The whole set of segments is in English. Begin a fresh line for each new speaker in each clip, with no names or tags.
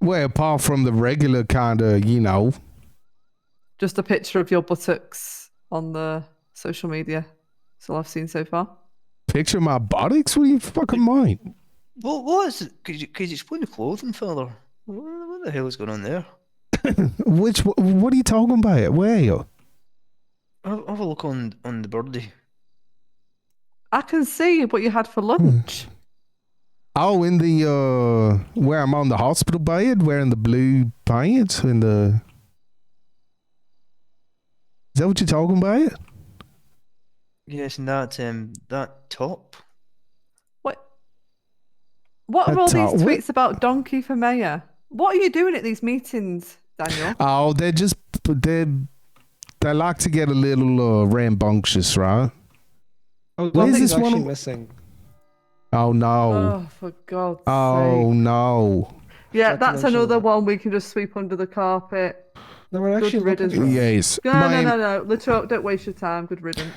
Well, apart from the regular kind of, you know,
Just a picture of your buttocks on the social media. That's all I've seen so far.
picture my buttocks. What do you fucking mind?
What was it? Could you, could you explain the clothing further? What, what the hell is going on there?
Which? wh- What are you talking about? Where?
Have, have a look on on the birdie.
I can see what you had for
Hmm.
lunch.
Oh, in the uh, where I'm on the hospital bed, wearing the blue pants and the. Is that what you're talking about?
Yes, and that um that top.
What? What are all
That's
these
all- what-
tweets about donkey for mayor? What are you doing at these meetings, Daniel?
Oh, they just they they like to get a little uh, rambunctious, right?
Oh,
Where is
nothing's
this one
actually
on-
missing.
Oh no!
Oh, for God's
Oh,
sake!
no!
Yeah,
Jack
that's
mentioned
another
that.
one we can just sweep under the carpet.
No, we're actually
Good
looking
riddance.
for-
Yes,
No,
ma'am,
no, no, no. Literal, don't waste your time. Good riddance.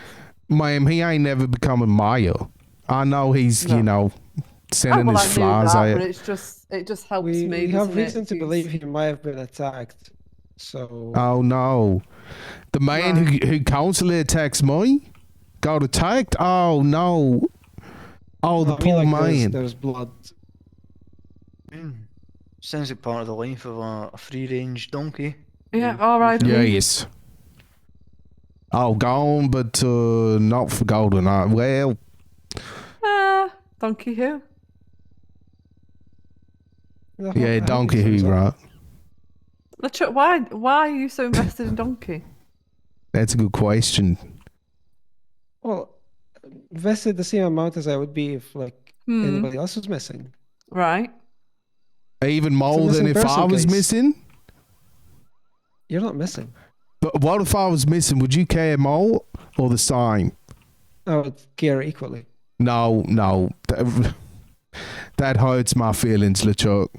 ma'am, he ain't never becoming Maya. I know he's
No.
you know
Oh,
sending
well, I
his
knew
flies
that, but
out.
it's just it just helps
We,
me.
we have
doesn't it,
reason to
if you-
believe he might have been attacked. So
Oh no! The man who who constantly attacks me got attacked. Oh no! Oh, the
I mean,
poor
like, uh, there's-
man.
There's blood.
Hmm. Sounds like part of the life of a, a free range donkey.
Yeah, all right.
Yes. Oh, gone, but uh, not forgotten. Uh, well,
Uh, donkey who?
No, I
yeah,
hope
Donkey
he turns
Who,
up.
right?
Literal, why why are you so invested in donkey?
That's a good question.
Well, invested the same amount as I would be if like
Hmm.
anybody else was missing.
Right.
Even more than
missing
if I
person
was
case.
missing.
You're not missing.
But what if I was missing? Would you care more or the same?
I would care equally.
No, no. That, that hurts my feelings, LeChuck.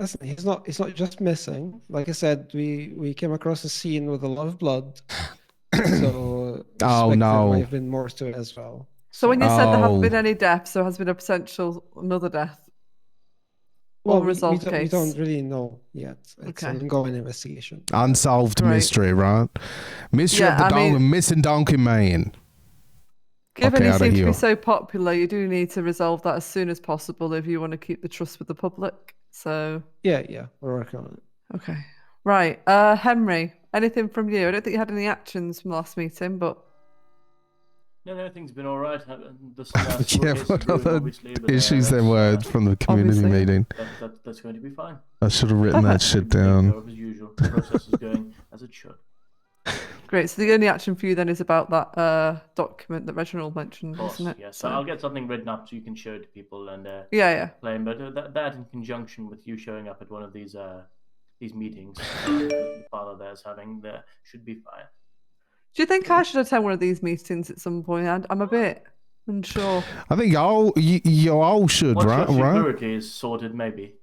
Listen, he's not. He's not just missing. Like I said, we we came across a scene with a lot of blood. so
Oh, no.
suspect there might have been more to it as well.
So when you said there haven't been
Oh.
any deaths, there has been a potential another death.
Well, we, we
resolved
don't, we
case.
don't really know yet. It's
Okay.
an ongoing investigation.
Unsolved
Right.
mystery, right? Mystery of
Yeah,
the
I
donkey,
mean-
missing donkey man.
Given
Okay,
he
outta
seems to
here.
be so popular, you do need to resolve that as soon as possible if you want to keep the trust with the public. So
Yeah, yeah, we're working on it.
okay, right. Uh, Henry, anything from you? I don't think you had any actions from last meeting, but
No, no, everything's been all right. I- There's some uh, civil
yeah,
cases
what
brewing,
other
obviously, but, uh,
issues there
that's,
were
uh,
from the community
Obviously.
meeting.
That, that, that's going to be fine.
I should have written that shit down.
As usual, the process is going as it should.
great. So the only action for you then is about that uh document that Reginald mentioned,
Of course,
isn't it?
yes. So I'll get something written up so you can show it to people and uh,
yeah, yeah.
claim. But uh, that, that in conjunction with you showing up at one of these uh, these meetings uh, the father there's having, there should be fine.
Do you think I should attend one of these meetings at some point? I'm- I'm a bit unsure.
I think y'all, y- y'all all should,
Once
right?
your
Right?
security is sorted, maybe.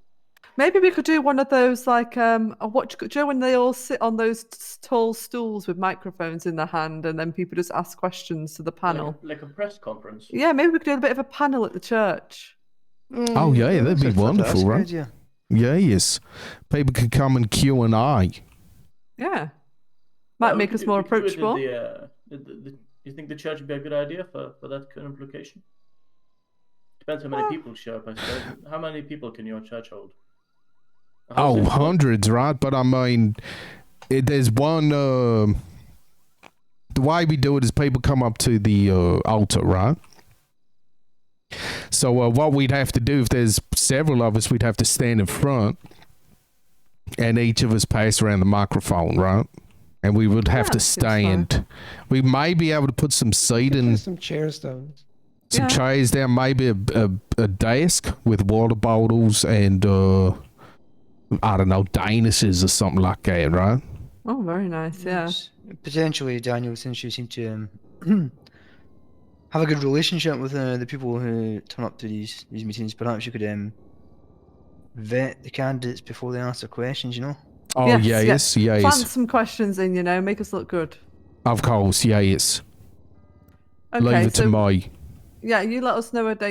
Maybe
Maybe we could do one of those like um a watch. Do you know when they all sit on those s- tall stools with microphones in their hand, and then people just ask questions to the
like a-
panel?
Like a press conference.
Yeah, maybe we could do a bit of a panel at the church.
Oh, yeah, that'd be
That's a
wonderful,
fantastic
right?
idea.
Yes. People could come and Q and I.
Yeah, might
Well,
make
we
us
could-
more
we could do it in
approachable.
The, uh, the, the, the- you think the church would be a good idea for, for that kind of location? Depends how many
Well-
people show up, I suppose. How many people can your church hold? A whole
Oh,
city?
hundreds, right? But I mean, it, there's one. Uh, the way we do it is people come up to the uh, altar, right? So uh, what we'd have to do if there's several of us, we'd have to stand in front, and each of us pass around the microphone, right? And we would have
Yeah,
to
that seems fine.
stand. We may be able to put some
You
seat
can
and
put some chairs down.
some
Yeah.
chairs down, maybe a, a, a desk with water bottles and uh, I don't know danises or something like that, right?
Oh, very nice. Yeah,
Yes. Potentially, Daniel, since you seem to um, have a good relationship with uh, the people who turn up to these these meetings, perhaps you could um, vet the candidates before they ask their questions. You know.
Oh
Yes,
yeah, yes, yes,
plant some questions in. You know, make us look good.
of course, yes.
Okay,
Leave it
so
to me.
yeah, you let us know a date.